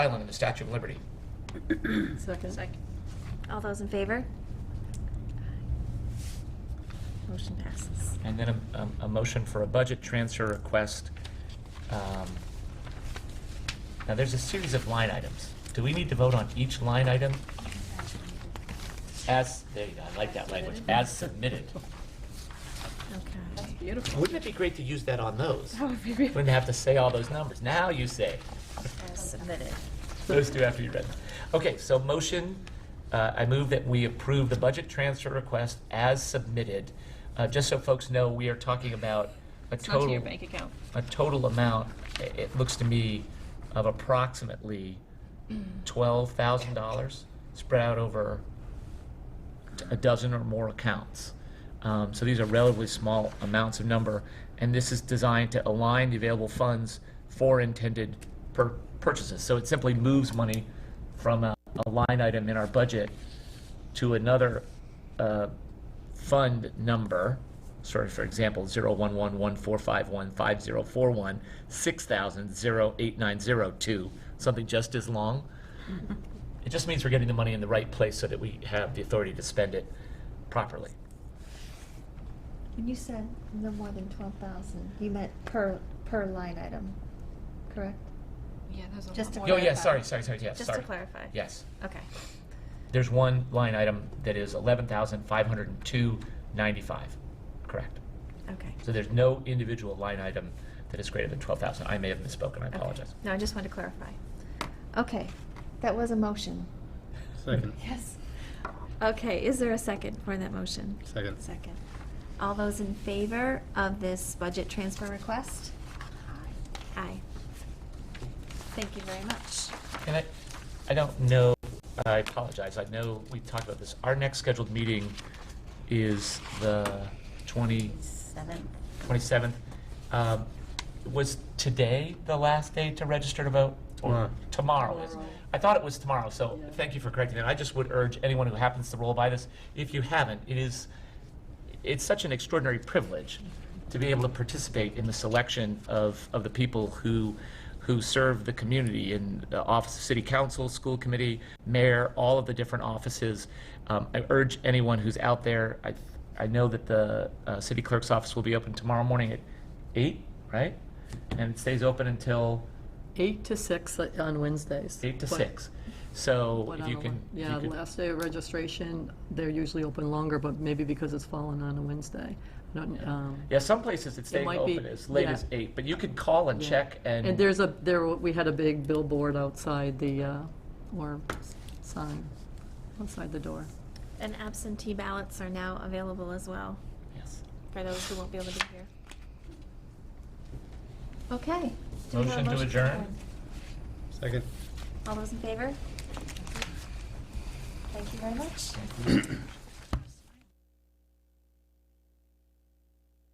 island and the Statue of Liberty. Second. All those in favor? Motion passes. And then a, a- a motion for a budget transfer request. Um, Now, there's a series of line items. Do we need to vote on each line item? As, there you go, I like that language, as submitted. Okay. Beautiful. Wouldn't it be great to use that on those? That would be really- Wouldn't have to say all those numbers. Now you say. As submitted. Those two after you read them. Okay, so motion, uh, I move that we approve the budget transfer request as submitted. Uh, Just so folks know, we are talking about a It's not total. to your bank account. a total amount, i- it looks to me, of approximately twelve thousand dollars spread out over t- a dozen or more accounts. Um, so these are relatively small amounts of number, and this is designed to align the available funds for intended pur- purchases. So it simply moves money from a, a line item in our budget to another uh, fund number, sorry, for example, 011145150416000890 6000 something just as long. It just means we're getting the money in the right place so that we have the authority to spend it properly. When you said no more than twelve thousand, you meant per, per line item, correct? Yeah, there's a Just lot to Oh, more. clarify. yeah, sorry, sorry, sorry, yes, Just sorry. to clarify. Yes. Okay. There's one line item that is 11,502.95, correct. Okay. So there's no individual line item that is greater than 12,000. I may have misspoken, I Okay. apologize. No, I just wanted to clarify. Okay, that was a motion. Second. Yes. Okay, is there a second for that motion? Second. Second. All those in favor of this budget transfer request? Aye. Thank you very much. And I, I don't know, I apologize, I know we talked about this. Our next scheduled meeting is the 20, Seventh. 27th. Um, Was today the last day to register to vote? Or Tomorrow is. I thought it was tomorrow, so thank you for correcting that. I just would urge anyone who happens to roll by this, if you haven't, it is, it's such an extraordinary privilege to be able to participate in the selection of, of the people who, who serve the community in the office of city council, school committee, mayor, all of the different offices. Um, I urge anyone who's out there, I, I know that the uh, city clerk's office will be open tomorrow morning at eight, right? And it stays open until Eight to six like, on Wednesdays. eight to But- six. So but if on you the- can, if you Yeah, could- last day of registration, they're usually open longer, but maybe because it's fallen on a Wednesday. I don't, um, yeah, some places it's staying might open be- as late yeah. as eight, but you could call and Yeah. check and. And there's a, there, were- we had a big billboard outside the, uh, or s- sign outside the door. And absentee ballots are now available as well Yes. for those who won't be able to be here. Okay. Do we have a Motion to adjourn? Second. All those in favor? Thank you very much.